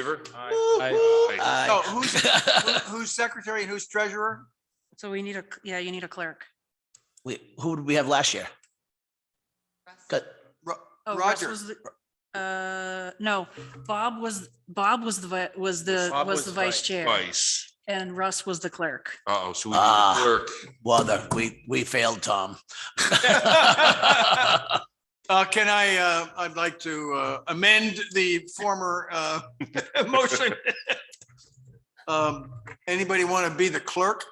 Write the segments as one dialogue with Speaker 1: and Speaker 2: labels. Speaker 1: favor?
Speaker 2: Aye.
Speaker 3: So who's, who- who's secretary and who's treasurer?
Speaker 4: So we need a, yeah, you need a clerk.
Speaker 2: We, who did we have last year? Got,
Speaker 3: Ro-
Speaker 4: Oh, Russ
Speaker 3: Roger,
Speaker 4: was the- Uh, no, Bob was, Bob was the, vi- was the,
Speaker 1: Bob
Speaker 4: was the vice chair
Speaker 1: Vice.
Speaker 4: and Russ was the clerk.
Speaker 1: Uh-oh, so we need
Speaker 2: Ah.
Speaker 1: a clerk.
Speaker 2: well, the- we, we failed, Tom.
Speaker 3: uh, can I, uh, I'd like to, uh, amend the former, uh, motion. Um, anybody want to be the clerk?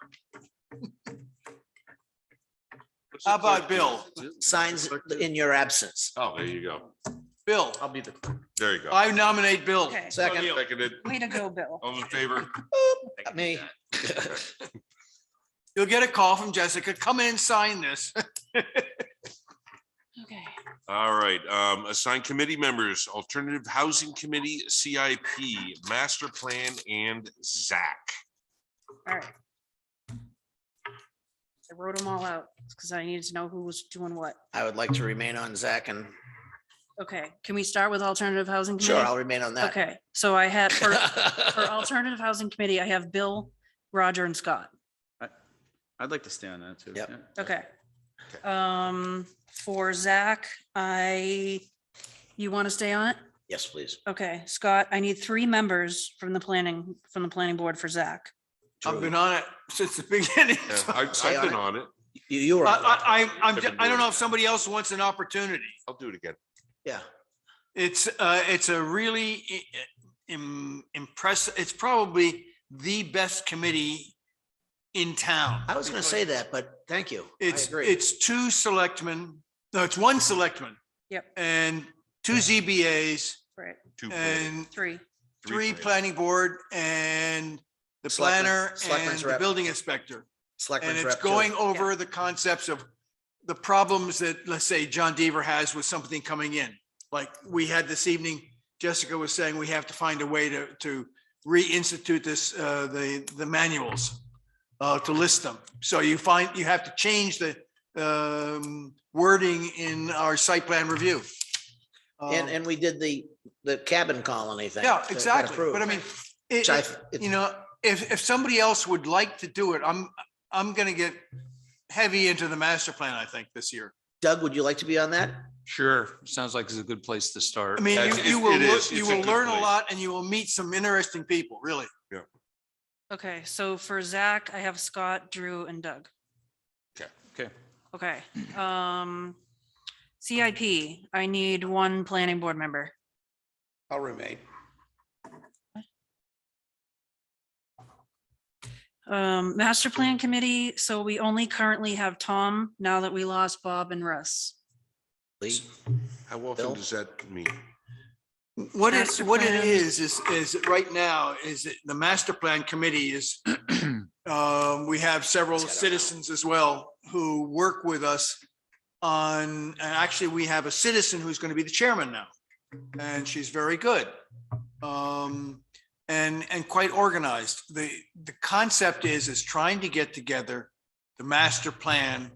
Speaker 1: What's
Speaker 3: How
Speaker 1: the clerk
Speaker 3: about
Speaker 1: do?
Speaker 3: Bill?
Speaker 2: Signs in your absence.
Speaker 1: Oh, there you go.
Speaker 3: Bill,
Speaker 5: I'll be the.
Speaker 1: There you go.
Speaker 3: I nominate
Speaker 2: Oh.
Speaker 3: Bill.
Speaker 4: Okay,
Speaker 2: Second,
Speaker 1: Seconded.
Speaker 4: way to go, Bill.
Speaker 1: All in favor?
Speaker 2: me.
Speaker 3: You'll get a call from Jessica, come in, sign this.
Speaker 4: Okay.
Speaker 1: All right, um, assign committee members, Alternative Housing Committee, CIP, Master Plan, and Zach.
Speaker 4: All right. I wrote them all out because I needed to know who was doing what.
Speaker 2: I would like to remain on Zach and
Speaker 4: Okay, can we start with alternative housing?
Speaker 2: sure,
Speaker 4: committee?
Speaker 2: I'll remain on that.
Speaker 4: Okay, so I had, for, for alternative housing committee, I have Bill, Roger and Scott.
Speaker 5: I'd like to stay on that too.
Speaker 2: Yep.
Speaker 5: yeah.
Speaker 4: Okay. Um, for Zach, I, you want to stay on it?
Speaker 2: Yes, please.
Speaker 4: Okay, Scott, I need three members from the planning, from the planning board for Zach.
Speaker 3: I've been on it since the beginning.
Speaker 1: Yeah, I- I've been on it.
Speaker 2: You, you
Speaker 3: I,
Speaker 2: were, on that.
Speaker 3: I, I'm, I'm ju- I don't know if somebody else wants an opportunity.
Speaker 1: I'll do it again.
Speaker 2: yeah.
Speaker 3: It's, uh, it's a really i- i- im- impressive, it's probably the best committee in town.
Speaker 2: I was gonna say that, but thank you. I
Speaker 3: It's,
Speaker 2: agree.
Speaker 3: it's two selectmen, no, it's one selectman.
Speaker 4: Yep.
Speaker 3: And two ZBAs
Speaker 4: Right.
Speaker 1: Two planning,
Speaker 3: and
Speaker 4: Three.
Speaker 3: three planning board and the
Speaker 2: Selectmen-
Speaker 3: planner and
Speaker 2: selectmen's
Speaker 3: the
Speaker 2: rep.
Speaker 3: building inspector.
Speaker 2: Selectmen's
Speaker 3: And it's
Speaker 2: rep, too.
Speaker 3: going over the concepts of the problems that, let's say, John Deaver has with something coming in. Like we had this evening, Jessica was saying we have to find a way to, to reinstitute this, uh, the, the manuals, uh, to list them. So you find, you have to change the, um, wording in our site plan review.
Speaker 2: And,
Speaker 3: Um,
Speaker 2: and we did the, the cabin colony thing.
Speaker 3: Yeah,
Speaker 2: that got
Speaker 3: exactly. But I
Speaker 2: approved,
Speaker 3: mean, it,
Speaker 2: Which I, it's-
Speaker 3: you know, if, if somebody else would like to do it, I'm, I'm gonna get heavy into the master plan, I think, this year.
Speaker 2: Doug, would you like to be on that?
Speaker 6: Sure, sounds like it's a good place to start.
Speaker 3: I mean,
Speaker 1: That's-
Speaker 3: you, you
Speaker 1: it-
Speaker 3: will,
Speaker 1: it
Speaker 3: lear-
Speaker 1: is.
Speaker 3: you
Speaker 1: It's a
Speaker 3: will
Speaker 1: good
Speaker 3: learn a
Speaker 1: place.
Speaker 3: lot and you will meet some interesting people, really.
Speaker 4: Okay, so for Zach, I have Scott, Drew and Doug.
Speaker 6: Okay.
Speaker 4: Okay, um, CIP, I need one planning board member.
Speaker 5: I'll remain.
Speaker 4: Um, master plan committee, so we only currently have Tom now that we lost Bob and Russ.
Speaker 2: Lee?
Speaker 1: How often
Speaker 2: Bill?
Speaker 1: does that mean?
Speaker 3: What it,
Speaker 4: Master
Speaker 3: what it
Speaker 4: plan.
Speaker 3: is, is, is right now, is that the master plan committee is, um, we have several citizens as well who work with us on, and actually, we have a citizen who's going to be the chairman now. And she's very good. Um, and, and quite organized. The, the concept is, is trying to get together the master plan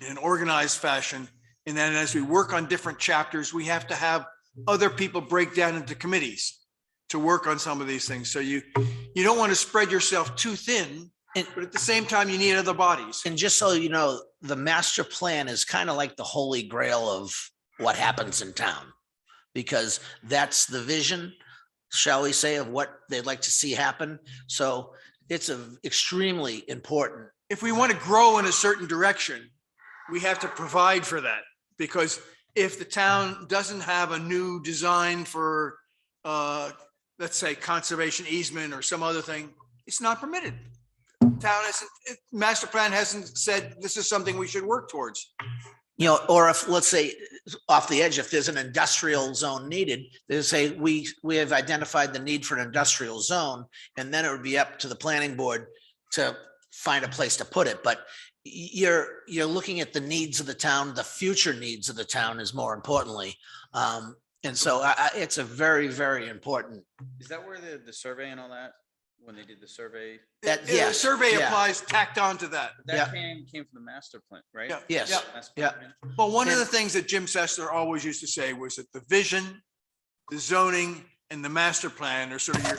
Speaker 3: in an organized fashion. And then as we work on different chapters, we have to have other people break down into committees to work on some of these things. So you, you don't want to spread yourself too thin,
Speaker 2: And-
Speaker 3: but at the same time, you need other bodies.
Speaker 2: And just so you know, the master plan is kind of like the holy grail of what happens in town. Because that's the vision, shall we say, of what they'd like to see happen. So it's a extremely important.
Speaker 3: If we want to grow in a certain direction, we have to provide for that. Because if the town doesn't have a new design for, uh, let's say conservation easement or some other thing, it's not permitted. Town hasn't, it- master plan hasn't said this is something we should work towards.
Speaker 2: You know, or if, let's say, off the edge, if there's an industrial zone needed, they say, we, we have identified the need for an industrial zone. And then it would be up to the planning board to find a place to put it. But y- you're, you're looking at the needs of the town, the future needs of the town is more importantly. Um, and so I, I, it's a very, very important,
Speaker 5: Is that where the, the survey and all that, when they did the survey?
Speaker 2: That-
Speaker 3: Yeah, the
Speaker 2: yes,
Speaker 3: survey
Speaker 2: yeah.
Speaker 3: applies tacked on to that.
Speaker 2: Yeah.
Speaker 5: That came, came from the master plan, right?
Speaker 3: Yeah,
Speaker 2: Yes.
Speaker 3: yeah.
Speaker 5: Master
Speaker 2: yeah.
Speaker 5: plan.
Speaker 3: Well, one of
Speaker 2: Yeah.
Speaker 3: the things that Jim Sessler always used to say was that the vision, the zoning, and the master plan are sort of your